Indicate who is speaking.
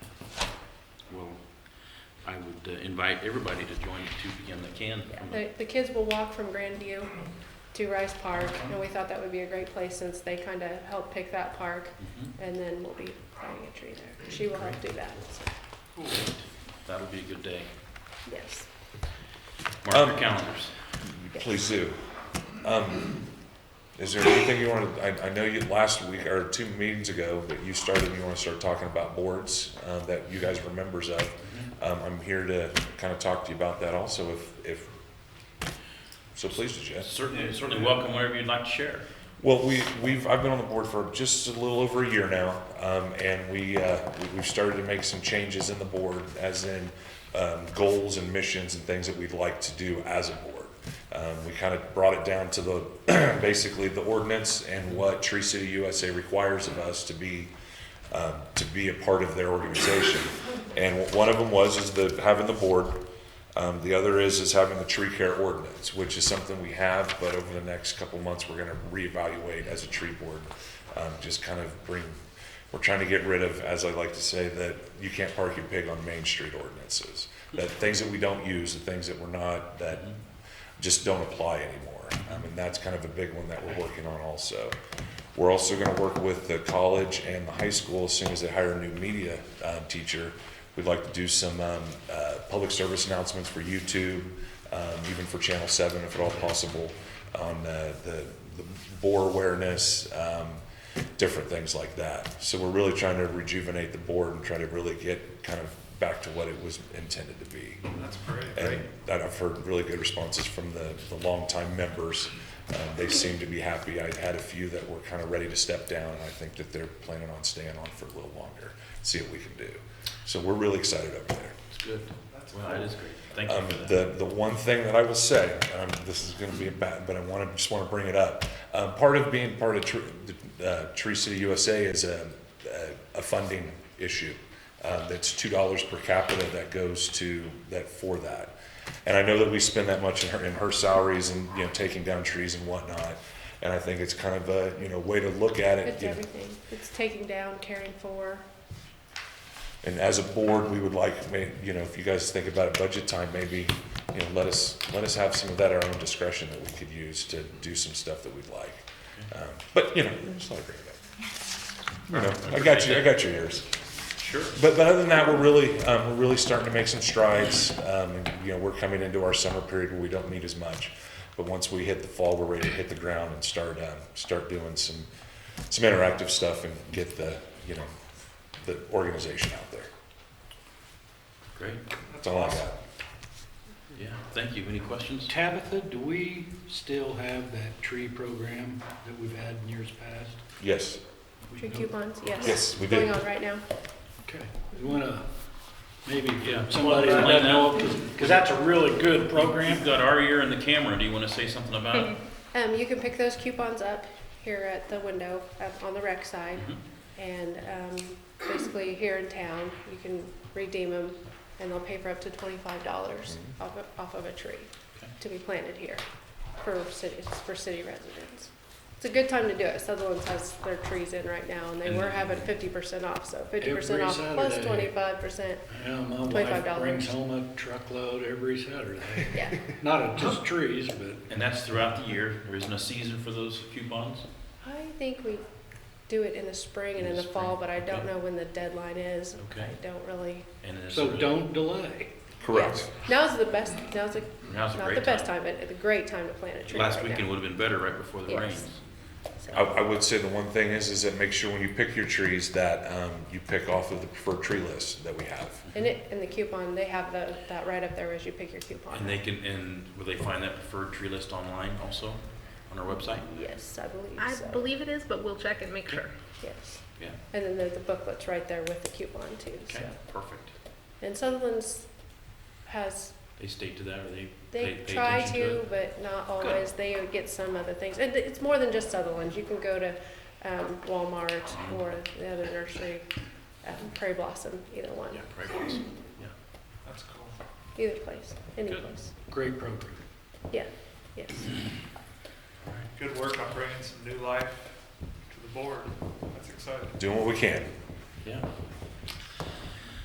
Speaker 1: I would uh, invite everybody to join at 2 PM that can. Mm-hmm. from the-
Speaker 2: The, the kids will walk from Grandview to Rice Park, and we thought that would be a great place since they kind of helped pick that park,
Speaker 1: Mhm.
Speaker 2: and then we'll be planting a tree there. She will help do that, so,
Speaker 1: Great. That'll be a good day.
Speaker 2: yes.
Speaker 1: Mark your
Speaker 3: Um,
Speaker 1: calendars.
Speaker 3: Please do. Um, is there anything you want to, I, I know you, last week, or two meetings ago, that you started, and you want to start talking about boards, uh, that you guys were members of. Um, I'm here to kind of talk to you about that also, if, if, so please, suggest.
Speaker 1: Certainly, certainly welcome wherever you'd like to share.
Speaker 3: Well, we, we've, I've been on the board for just a little over a year now, um, and we, uh, we- we've started to make some changes in the board, as in, um, goals and missions and things that we'd like to do as a board. Um, we kind of brought it down to the, basically the ordinance and what Tree City USA requires of us to be, um, to be a part of their organization. And one of them was is the having the board. Um, the other is is having the tree care ordinance, which is something we have, but over the next couple months we're going to reevaluate as a tree board. Um, just kind of bring. We're trying to get rid of, as I like to say, that you can't park your pig on Main Street ordinances. That things that we don't use, the things that we're not that just don't apply anymore. Um, and that's kind of a big one that we're working on also. We're also going to work with the college and the high school as soon as they hire a new media um, teacher. We'd like to do some um, uh, public service announcements for YouTube, um, even for Channel 7 if at all possible, on uh, the, the bore awareness, um, different things like that. So we're really trying to rejuvenate the board and try to really get kind of back to what it was intended to be.
Speaker 4: That's great.
Speaker 3: And that I've heard really good responses from the, the longtime members. Um, They seem to be happy. I had a few that were kind of ready to step down, and I think that they're planning on staying on for a little longer, see what we can do. So we're really excited over there.
Speaker 1: It's good.
Speaker 4: That's
Speaker 1: Well, that is great. Thank
Speaker 3: Um,
Speaker 1: you for that.
Speaker 3: the, the one thing that I will say, um, this is gonna be a bad, but I wanna, just wanna bring it up. Um, part of being part of Tree, uh, Tree City USA is a, a- a funding issue. Uh, that's two dollars per capita that goes to, that, for that. And I know that we spend that much in her, in her salaries and, you know, taking down trees and whatnot. And I think it's kind of a, you know, way to look at it.
Speaker 2: It's
Speaker 3: you know.
Speaker 2: everything. It's taking down, caring for.
Speaker 3: And as a board, we would like, may- you know, if you guys think about it, budget time, maybe, you know, let us, let us have some of that at our own discretion that we could use to do some stuff that we'd like. Um, But, you know, just let it bring it up. You know, I got you, I got your ears.
Speaker 1: Sure.
Speaker 3: But, but other than that, we're really, um, we're really starting to make some strides. Um, and, you know, we're coming into our summer period where we don't need as much. But once we hit the fall, we're ready to hit the ground and start, um, start doing some, some interactive stuff and get the, you know, the organization out there.
Speaker 1: Great.
Speaker 3: That's all I got.
Speaker 1: Yeah, thank you. Any questions?
Speaker 4: Tabitha, do we still have that tree program that we've had in years past?
Speaker 3: Yes,
Speaker 4: We
Speaker 2: Tree
Speaker 4: don't-
Speaker 2: coupons, yes.
Speaker 3: Yes, we
Speaker 2: Going
Speaker 3: do.
Speaker 2: on right now.
Speaker 4: Okay, you wanna, maybe
Speaker 1: Yeah.
Speaker 4: somebody that doesn't know, because that's a really good program.
Speaker 1: You've got our ear and the camera. Do you want to say something about it?
Speaker 2: Um, you can pick those coupons up here at the window, up on the rec side,
Speaker 1: Mhm.
Speaker 2: and, um, basically here in town, you can redeem them, and they'll pay for up to twenty-five dollars off, of- off of a tree
Speaker 1: Mm-hmm. Okay.
Speaker 2: to be planted here for cities, for city residents. It's a good time to do it, Sutherland has their trees in right now, and they
Speaker 1: Mm-hmm.
Speaker 2: were having fifty percent off, so fifty percent
Speaker 4: Every
Speaker 2: off plus
Speaker 4: Saturday.
Speaker 2: twenty-five percent,
Speaker 4: Yeah, my wife
Speaker 2: $25.
Speaker 4: brings home a truckload every Saturday.
Speaker 2: yeah.
Speaker 4: Not of just trees, but
Speaker 1: And that's throughout the year. There isn't a season for those coupons?
Speaker 2: I think we do it in the spring and in the fall, but I don't know when the deadline is.
Speaker 1: Okay.
Speaker 2: I don't really.
Speaker 1: And it's
Speaker 4: so
Speaker 1: a-
Speaker 4: don't delay.
Speaker 3: correct.
Speaker 2: Now's the best, now's the,
Speaker 1: Now's a
Speaker 2: not
Speaker 1: great
Speaker 2: the best
Speaker 1: time.
Speaker 2: time, but it's a great time to plant a tree
Speaker 1: Last
Speaker 2: right
Speaker 1: weekend
Speaker 2: now.
Speaker 1: would have been better right before the
Speaker 2: Yes.
Speaker 1: rains.
Speaker 2: So-
Speaker 3: I, I would say the one thing is, is that make sure when you pick your trees that, um, you pick off of the preferred tree list that we have.
Speaker 2: And it, and the coupon, they have the, that right up there as you pick your coupon.
Speaker 1: And they can, and will they find that preferred tree list online also on our website?
Speaker 2: Yes, I
Speaker 5: I
Speaker 2: believe so,
Speaker 5: believe it is, but we'll check and make sure.
Speaker 2: yes.
Speaker 1: Yeah.
Speaker 2: And then there's the booklets right there with the coupon too, so.
Speaker 1: Okay, perfect.
Speaker 2: And Sutherland's has
Speaker 1: They stay to that or they?
Speaker 2: They
Speaker 1: pay
Speaker 2: try
Speaker 1: attention
Speaker 2: to,
Speaker 1: it?
Speaker 2: but not always. They would get some other things. And it's more than just Sutherland. You can go to um, Walmart
Speaker 1: Mm-hmm.
Speaker 2: or the other nursery, um, Prairie Blossom, either one,
Speaker 1: Yeah, probably was.
Speaker 4: That's cool.
Speaker 2: either place, any
Speaker 1: Good.
Speaker 2: place.
Speaker 4: Great program.
Speaker 2: Yeah, yes.
Speaker 6: Good work on bringing some new life to the board. That's exciting.
Speaker 3: Doing what we can.
Speaker 1: Yeah,